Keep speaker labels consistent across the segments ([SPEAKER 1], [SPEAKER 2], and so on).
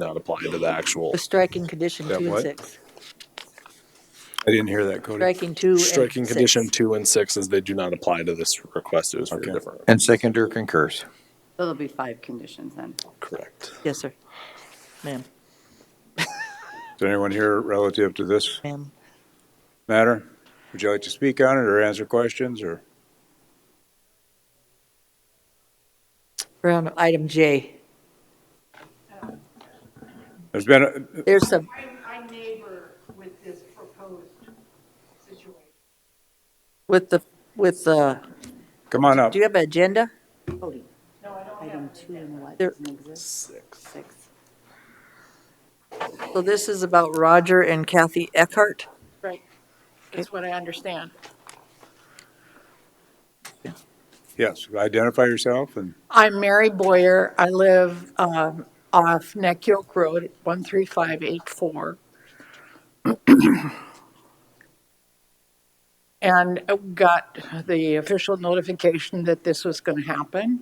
[SPEAKER 1] not apply to the actual.
[SPEAKER 2] The striking condition
[SPEAKER 1] That
[SPEAKER 2] two and
[SPEAKER 1] what?
[SPEAKER 2] six.
[SPEAKER 1] I didn't hear that, Cody.
[SPEAKER 2] Striking two and six.
[SPEAKER 1] Striking condition two and six is they do not apply to this request. It was for a
[SPEAKER 3] Okay.
[SPEAKER 1] different.
[SPEAKER 3] And seconder concurs.
[SPEAKER 4] So There'll be five conditions then.
[SPEAKER 1] Correct.
[SPEAKER 2] Yes, sir. Ma'am,
[SPEAKER 5] Is anyone here relative to this
[SPEAKER 2] ma'am.
[SPEAKER 5] matter? Would you like to speak on it or answer questions or?
[SPEAKER 2] We're on item J.
[SPEAKER 5] There's been, a-
[SPEAKER 2] There's some,
[SPEAKER 6] I'm, I neighbor with this proposed situation.
[SPEAKER 2] with the, with the,
[SPEAKER 5] come on up.
[SPEAKER 2] do you have an agenda?
[SPEAKER 4] Cody? No, I don't Item two and what
[SPEAKER 2] There-
[SPEAKER 4] doesn't exist? Six.
[SPEAKER 2] So this is about Roger and Kathy Eckhart.
[SPEAKER 6] Right, that's what I understand.
[SPEAKER 5] Yes, identify yourself and
[SPEAKER 6] I'm Mary Boyer. I live um, off Neck York Road, 13584. And I got the official notification that this was going to happen.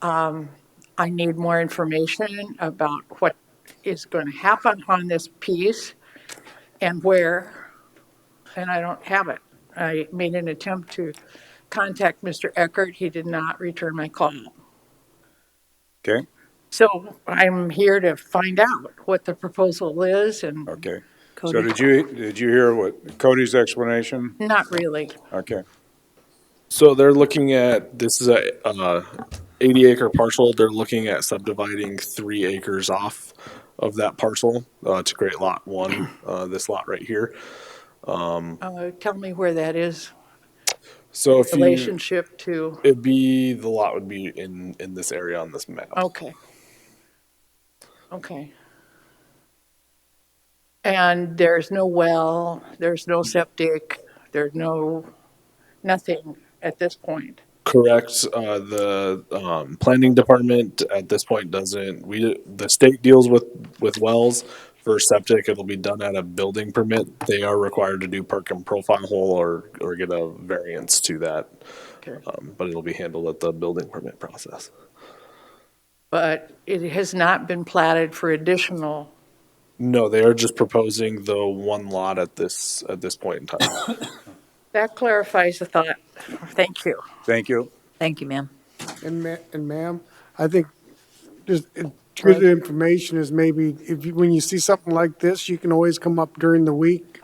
[SPEAKER 6] Um, I need more information about what is going to happen on this piece and where, and I don't have it. I made an attempt to contact Mr. Eckert. He did not return my call.
[SPEAKER 5] Okay,
[SPEAKER 6] So I'm here to find out what the proposal is and
[SPEAKER 5] okay. So
[SPEAKER 2] Cody,
[SPEAKER 5] did you, did you hear what Cody's explanation?
[SPEAKER 6] not really.
[SPEAKER 5] Okay.
[SPEAKER 1] So they're looking at, this is a, uh, eighty acre parcel. They're looking at subdividing three acres off of that parcel, uh, to create lot one, uh, this lot right here.
[SPEAKER 6] Uh, Tell me where that is,
[SPEAKER 1] So if you,
[SPEAKER 6] relationship to,
[SPEAKER 1] it'd be, the lot would be in, in this area on this map.
[SPEAKER 6] okay. Okay. And there's no well, there's no septic, there's no, nothing at this point.
[SPEAKER 1] Correct. Uh, the um, planning department at this point doesn't. We the state deals with with wells for septic. It'll be done at a building permit. They are required to do perk and profile hole or or get a variance to that,
[SPEAKER 6] Okay.
[SPEAKER 1] um, but it'll be handled at the building permit process.
[SPEAKER 6] But it has not been platted for additional,
[SPEAKER 1] No, they are just proposing the one lot at this at this point in time.
[SPEAKER 6] that clarifies the thought. Thank you.
[SPEAKER 5] Thank you.
[SPEAKER 2] thank you, ma'am.
[SPEAKER 7] And ma- and ma'am, I think just uh, good information is maybe if you, when you see something like this, you can always come up during the week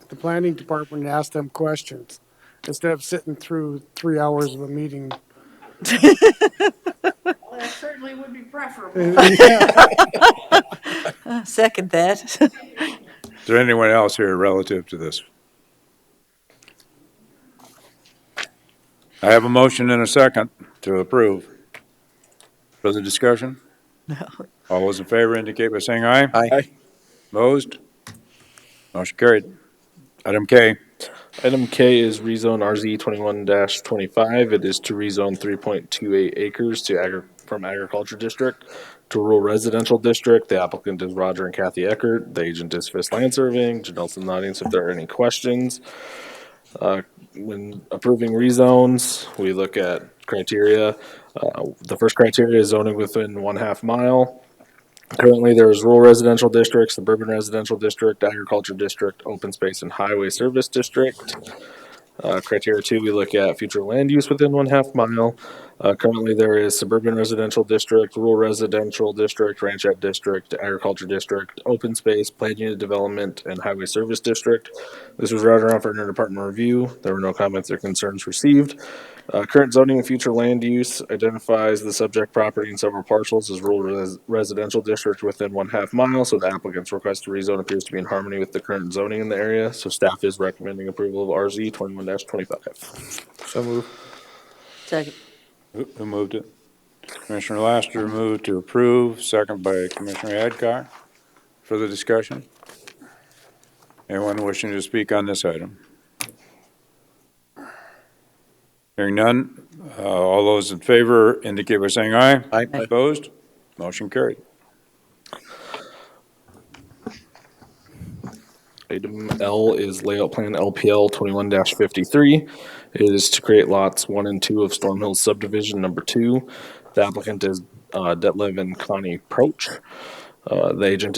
[SPEAKER 7] at the planning department and ask them questions instead of sitting through three hours of a meeting.
[SPEAKER 6] Well, that certainly would be preferable.
[SPEAKER 2] Second that.
[SPEAKER 5] Is there anyone else here relative to this? I have a motion and a second to approve. Further discussion? No. All those in favor indicate by saying aye.
[SPEAKER 3] Aye.
[SPEAKER 5] Opposed? Motion carried. Item K.
[SPEAKER 1] Item K is rezone RZ twenty one twenty five. It is to rezone three point two eight acres to agri- from agriculture district to rural residential district. The applicant is Roger and Kathy Eckert. The agent is Fisk Land Surveying. Janelle's in the audience if there are any questions. Uh, when approving rezones, we look at criteria. Uh, the first criteria is zoning within one half mile. Currently, there is rural residential district, suburban residential district, agriculture district, open space and highway service district. Uh, criteria two, we look at future land use within one half mile. Uh, currently, there is suburban residential district, rural residential district, ranchette district, agriculture district, open space, planned unit development, and highway service district. This was routed around for interdepartment review. There were no comments or concerns received. Uh, current zoning and future land use identifies the subject property in several parcels as rural res- residential district within one half mile. So the applicant's request to rezone appears to be in harmony with the current zoning in the area. So staff is recommending approval of RZ twenty-one twenty-five.
[SPEAKER 3] So move.
[SPEAKER 2] Second,
[SPEAKER 5] Who who moved it? Commissioner Laster moved to approve, second by Commissioner Adcock. Further discussion? Anyone wishing to speak on this item? Hearing none, uh, all those in favor indicate by saying aye.
[SPEAKER 3] Aye.
[SPEAKER 5] Opposed? Motion carried.
[SPEAKER 1] Item L is layout plan LPL twenty-one fifty-three. It is to create lots one and two of Storm Hills subdivision number two. The applicant is, uh, Detlev and Connie Proch. Uh, The agent